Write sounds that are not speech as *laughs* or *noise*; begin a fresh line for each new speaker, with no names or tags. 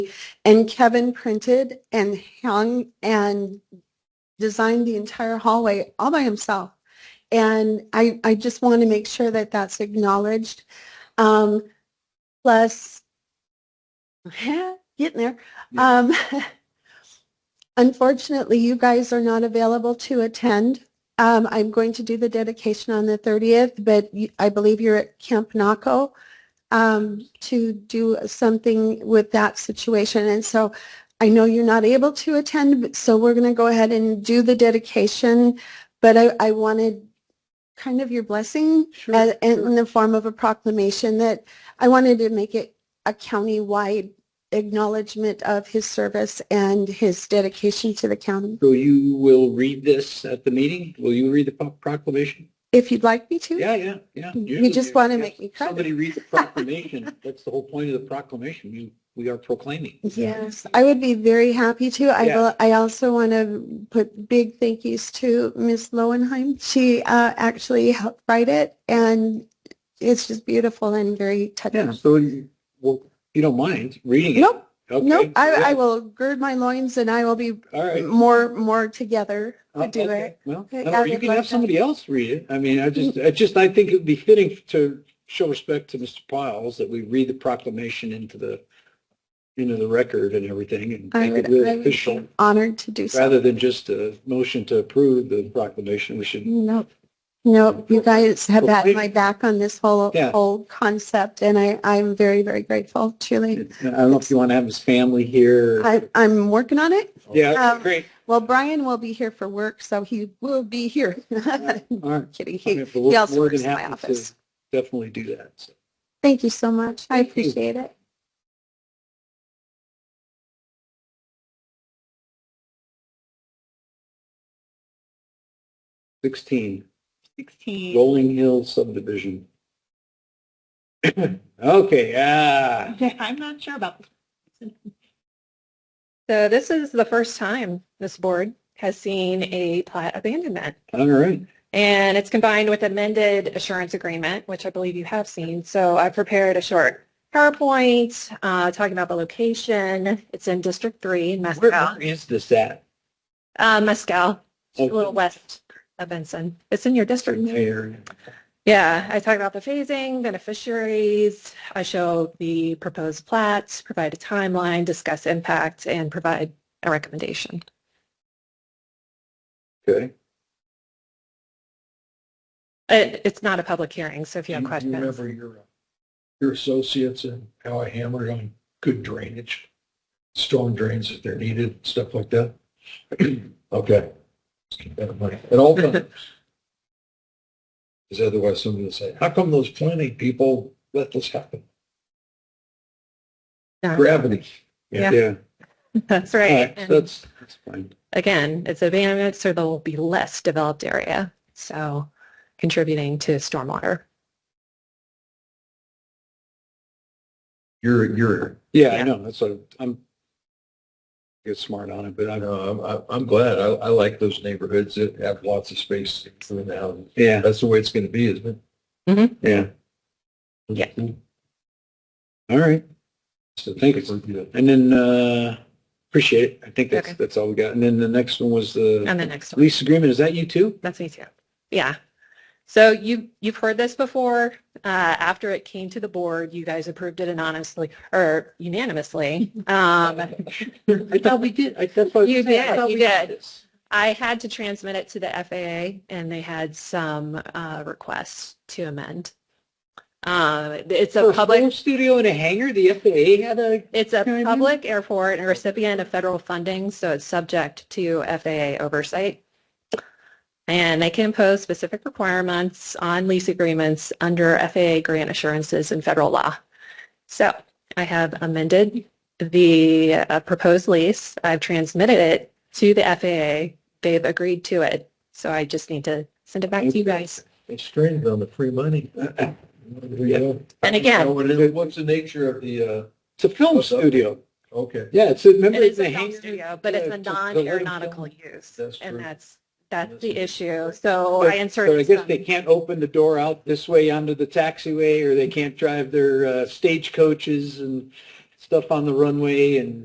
And Kevin printed and hung and designed the entire hallway all by himself. And I, I just want to make sure that that's acknowledged. Um, *laughs* plus, getting there. Um, *laughs* unfortunately, you guys are not available to attend. Um, I'm going to do the dedication on the 30th, but you- I believe you're at Camp Naco um, to do something with that situation. And so I know you're not able to attend, but so we're going to go ahead and do the dedication. But I, I wanted kind of your blessing
Sure.
as- Uh, in in the form of a proclamation that I wanted to make it a countywide acknowledgement of his service and his dedication to the county.
So you will read this at the meeting? Will you read the pro- proclamation?
If you'd like me to.
Yeah, yeah, yeah.
You
Usually
just
if-
wanna
if
make me cry.
Somebody read
*laughs*
the proclamation. That's the whole point of the proclamation. You, we are proclaiming.
Yes, I would be very happy to. I
Yeah.
will, I also want to put big thank yous to Ms. Lowenheim. She uh, actually helped write it and it's just beautiful and very
Yeah,
touching.
so you, well, you don't mind reading it?
Nope,
Okay,
nope,
yeah,
I, I will gird my loins and I will be
All right.
more, more together
Uh,
to do
okay,
it.
Well,
Okay,
or
I
you
would
can
like
have
that.
somebody else read it. I mean, I just,
Mm.
I just, I think it'd be fitting to show respect to Mr. Piles that we read the proclamation into the, into the record and everything and
I
make
would,
it
I
really
would be
official.
honored to do so.
Rather than just a motion to approve the proclamation, we should,
Nope. Nope, you guys have
Well,
had
we-
my back on this whole,
Yeah.
whole concept and I, I'm very, very grateful,
I
truly.
don't know if you want to have his family here.
I, um, I'm working on it.
Yeah,
um,
great.
Well, Brian will be here for work, so he will be here. *laughs*
All right.
Kidding. He,
Okay, but we're
also
more
works
than
in my
happy to
office.
Definitely do that. so.
thank you so much. I
Thank you.
appreciate it.
Sixteen.
16.
Rolling Hill subdivision. *coughs* Okay, ah,
Okay, I'm not sure about this. So this is the first time this board has seen a plat abandonment.
all right.
And it's combined with amended assurance agreement, which I believe you have seen. So I prepared a short PowerPoint uh, talking about the location. It's in District 3 in
Where-
Mescal.
where is this at?
Uh, Mescal, a
Okay.
little west of Benson. It's in your district.
Area.
Yeah, I talk about the phasing, beneficiaries. I show the proposed plats, provide a timeline, discuss impact, and provide a recommendation.
Okay.
It, it's not a public hearing, so if you have
Do you
questions.
remember your, uh, your associates and how I hammered on good drainage, storm drains if they're needed, stuff like that? *clears throat* Okay. Just keep that in mind. At all
*laughs*
times. Because otherwise somebody will say, how come those planning people let this happen?
No.
Gravity.
Uh-huh. Yeah. *laughs* That's
All
right.
right,
And
that's, that's fine.
again, it's abandonment, so there will be less developed area, so contributing to stormwater.
You're, you're,
Yeah, I
Yeah.
know, that's what I'm, get smart on it, but
I
I'm,
know, I'm- I'm, I'm glad. I, I like those neighborhoods that have lots of space between the houses.
yeah,
That's the way it's going to be, isn't it?
yeah.
Mm-hmm. Yeah.
All right,
So
Thank you.
for the-
and then, uh, appreciate it. I think that's,
Okay. Um,
that's all we got. And then the next one was
And
the
the next one.
lease agreement. Is that you too?
That's me too. Yeah. So you, you've heard this before. Uh, after it came to the board, you guys approved it anonymously or unanimously. Um,
*laughs* I thought we did. I, that's what. I was
You
saying. I
did,
thought
you
we did.
did.
this.
I had to transmit it to the FAA and they had some, uh, requests to amend. Uh, it's
For
a
a
public.
home studio and a hangar, the FAA had a,
It's a
Can I do-
public airport and a recipient of federal funding, so it's subject to FAA oversight. And they can impose specific requirements on lease agreements under FAA grant assurances and federal law. So I have amended the uh, proposed lease. I've transmitted it to the FAA. They've agreed to it. So I just need to send it back to you guys.
They strained on the free money.
*clears throat*
Yeah.
And again-
So what is- What's the nature of the, uh,
it's a film
What's up?
studio.
okay,
Yeah, it's, a- remember
It is
the
a film
hangar?
studio, but it's
Yeah,
a
it's a- the lighting
non-aeronautical use.
That's
And
true.
that's, that's
That's
the
true.
issue. So
But-
Oh, I
So I
inserted
guess they
some,
can't open the door out this way onto the taxiway or they can't drive their uh, stagecoaches and stuff on the runway and